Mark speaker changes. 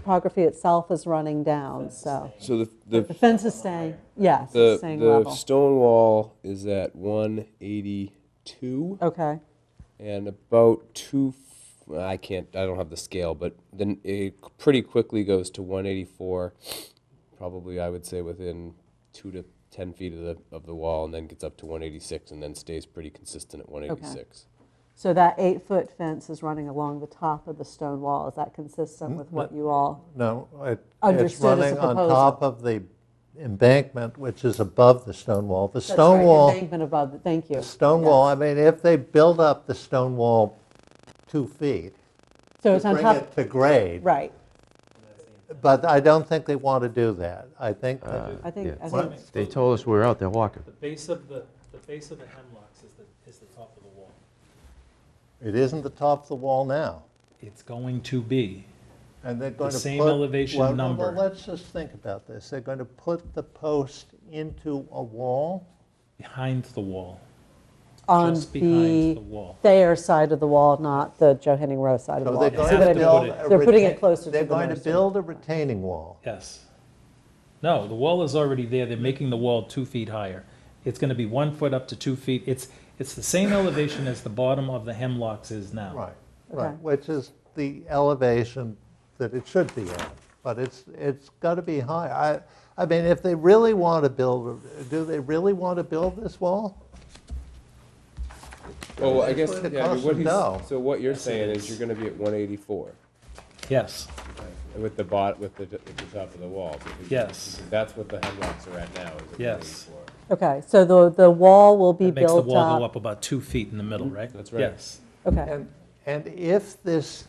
Speaker 1: topography itself is running down, so.
Speaker 2: So the,
Speaker 1: The
Speaker 2: the,
Speaker 1: fence is staying, yes,
Speaker 2: the,
Speaker 1: it's staying
Speaker 2: the
Speaker 1: level.
Speaker 2: stone wall is at one eighty-two
Speaker 1: Okay,
Speaker 2: and about two, f- I can't, I don't have the scale, but then it pretty quickly goes to one eighty-four. Probably, I would say within two to ten feet of the, of the wall and then gets up to one eighty-six and then stays pretty consistent at one eighty-six.
Speaker 1: so that eight-foot fence is running along the top of the stone wall. Is that consistent with what you all,
Speaker 3: No, it- it's
Speaker 1: Understood as a
Speaker 3: running on
Speaker 1: proposal.
Speaker 3: top of the embankment, which is above the stone wall. The
Speaker 1: that's right,
Speaker 3: stone
Speaker 1: the
Speaker 3: wall,
Speaker 1: embankment above, it. thank you.
Speaker 3: stone wall, I mean, if they build up the stone wall two feet,
Speaker 1: So
Speaker 3: to
Speaker 1: it's on
Speaker 3: bring
Speaker 1: top,
Speaker 3: it to grade,
Speaker 1: right,
Speaker 3: but I don't think they want to do that. I think, that-
Speaker 1: I think, I
Speaker 3: What?
Speaker 1: think,
Speaker 4: They told us we were out there walking.
Speaker 5: The base of the, the base of the hemlocks is the, is the top of the wall.
Speaker 3: it isn't the top of the wall now.
Speaker 5: It's going to be.
Speaker 3: And they're going to put...
Speaker 5: same elevation
Speaker 3: well, no,
Speaker 5: number.
Speaker 3: Well, let's just think about this. They're going to put the post into a wall?
Speaker 5: Behind the wall.
Speaker 1: on
Speaker 5: Just behind the
Speaker 1: the
Speaker 5: wall.
Speaker 1: their side of the wall, not the Joe Henning Rowe side of the
Speaker 3: So
Speaker 1: wall.
Speaker 3: they're
Speaker 1: See
Speaker 3: going
Speaker 1: what I
Speaker 3: to
Speaker 5: Have
Speaker 1: mean?
Speaker 3: build
Speaker 5: it.
Speaker 3: a
Speaker 1: They're putting it
Speaker 3: retain-
Speaker 1: closer to the
Speaker 3: They're going to
Speaker 1: nursery.
Speaker 3: build a retaining wall.
Speaker 5: Yes. No, the wall is already there. They're making the wall two feet higher. It's going to be one foot up to two feet. It's, it's the same elevation as the bottom of the hemlocks is now.
Speaker 3: Right,
Speaker 1: Okay.
Speaker 3: right, which is the elevation that it should be at, but it's, it's got to be high. I, I mean, if they really want to build, do they really want to build this wall?
Speaker 2: Well, I guess,
Speaker 3: It's gonna
Speaker 2: yeah, I mean,
Speaker 3: cost
Speaker 2: what
Speaker 3: them now.
Speaker 2: he's, so what you're saying
Speaker 5: it
Speaker 2: is you're gonna be at one eighty-four.
Speaker 5: Yes.
Speaker 2: With the bot, with the, with the top of the wall. because-
Speaker 5: Yes.
Speaker 2: because That's what the hemlocks are at now, is at
Speaker 5: Yes.
Speaker 2: 184.
Speaker 1: Okay, so the, the wall will be
Speaker 5: It makes the
Speaker 1: built
Speaker 5: wall go
Speaker 1: up.
Speaker 5: up about two feet in the middle, Mm-hmm. right?
Speaker 2: That's right.
Speaker 5: Yes.
Speaker 1: Okay,
Speaker 3: And, and if this